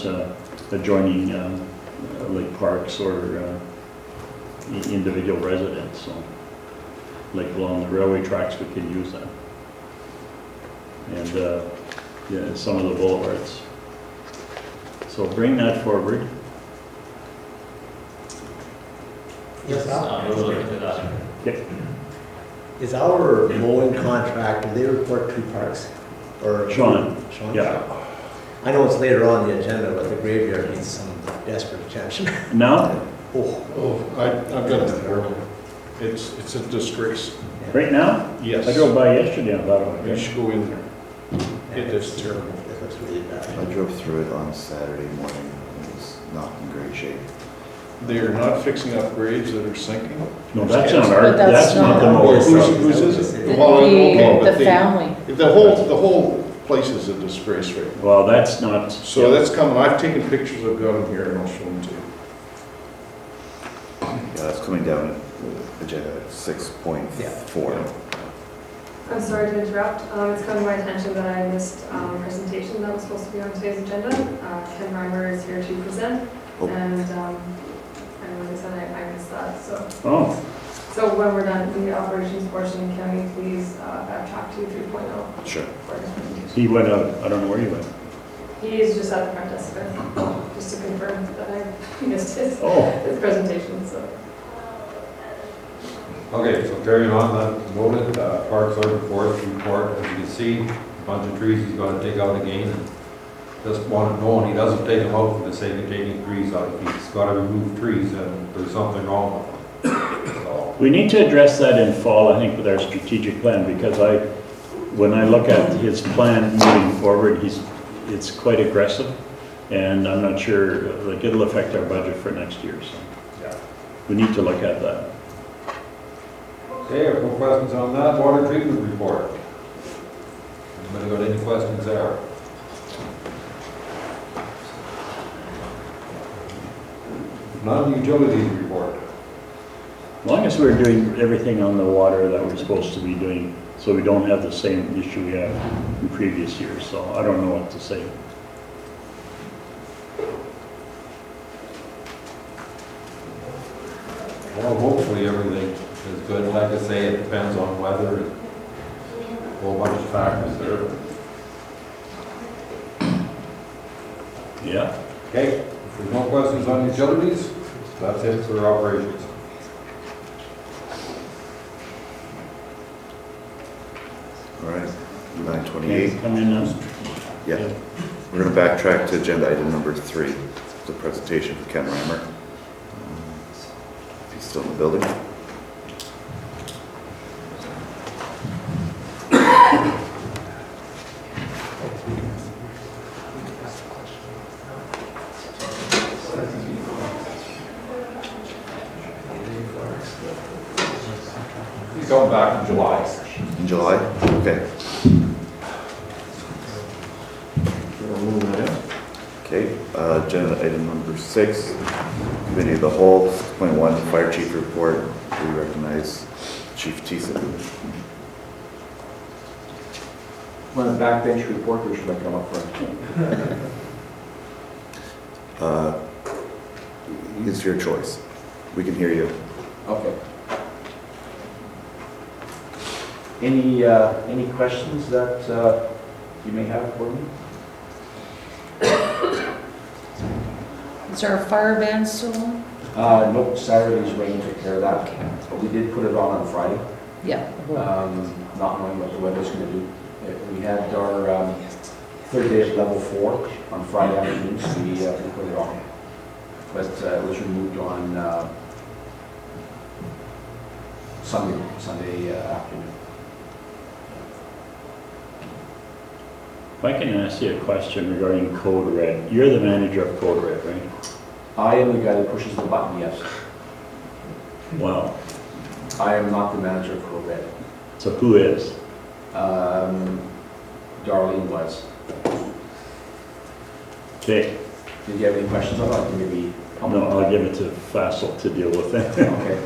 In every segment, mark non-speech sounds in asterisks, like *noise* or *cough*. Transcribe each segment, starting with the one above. uh, adjoining uh, Lake Parks or uh, i- individual residents, so like along the railway tracks, we can use that. And, uh, yeah, some of the boulevards. So bring that forward. Yes, Uh, we'll look into that. Is our mowing contract, do they report to parks? Or Sean. Sean? Yeah. I know it's later on the agenda, but the graveyard needs some desperate attention. Now, Oh, Oh, I, I've got a warning. It's, it's a disgrace. right now, Yes. I drove by yesterday on Ottawa. You should go in there. It is *laughs* terrible. It looks really I bad. drove through it on Saturday morning, and it's not in great shape. They are not fixing up graves that are sinking. No, that's not our, But that's that's not the not- mower Who's- truck. who's is The, Well, okay, but the they- family. The whole, the whole place is a disgrace right now. Well, that's not. So that's coming, I've taken pictures, I've got them here and I'll show them to you. Yeah, it's coming down uh, agenda six point four. I'm sorry to interrupt. Um, It's come to my attention that I missed um, a presentation that was supposed to be on today's agenda. Uh, Ken Reimer is here to present, Oh. and um, I really said I- I missed that, so. Oh, So when we're done with the operations portion, can we please uh, backtrack to 3.0 Sure. for his presentation? he went out, I don't know where he went. He is just at the front desk, but just to confirm that I *laughs* missed his Oh, his presentation, so. Okay, so carrying on, that noted, uh, Park Sergeant Forest report, as you can see, a bunch of trees he's gonna take out again. and Just want to know, and he doesn't take them out for the sake of taking trees out, he's gotta remove trees and there's something wrong with them. So, We need to address that in fall, I think, with our strategic plan, because I, when I look at his plan moving forward, he's, it's quite aggressive, and I'm not sure, like, it'll affect our budget for next year, so yeah. we need to look at that. Okay, if no questions on that, water treatment report. Anybody got any questions there? Non-utilities report. As long as we're doing everything on the water that we're supposed to be doing, so we don't have the same issue we had in previous years, so I don't know what to say. Well, hopefully everything is good. Like I say, it depends on weather and a whole bunch of factors there. Yeah, Okay, if there's no questions on utilities, that's it for operations. All right, can nine you twenty-eight. come in now? Yeah, we're gonna backtrack to agenda item number three, the presentation for Ken Reimer. Um, If he's still in the building. He's coming back in July. In July? Okay. Okay, uh, agenda item number six, committee of the whole, six point one, fire chief report. We recognize Chief Teason. One of the backbench reporters should I come up for? Uh, It's your choice. We can hear you. Okay. Any, uh, any questions that uh, you may have for me? Is there a fire ban still on? Uh, Nope, Saturday's rain took care of that, Okay, but we did put it on on Friday, yeah. um, not knowing what the weather's going to do. Uh, We had our um, third day at level four on Friday afternoon, so we uh, we put it on. But uh, it was removed on uh, Sunday, Sunday uh, afternoon. If I can ask you a question regarding Code Red, you're the manager of Code Red, right? I am the guy that pushes the button, yes. Wow, I am not the manager of Code Red. so who is? Um, Darlene was. Okay, Did you have any questions? I'd like to maybe. no, I'll give it to Fassel to deal with that. *laughs* Okay.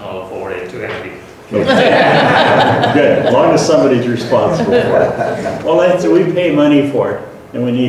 I'll forward it to Andy. Good, as long as somebody's responsible for it. Well, that's, we pay money for it, And we need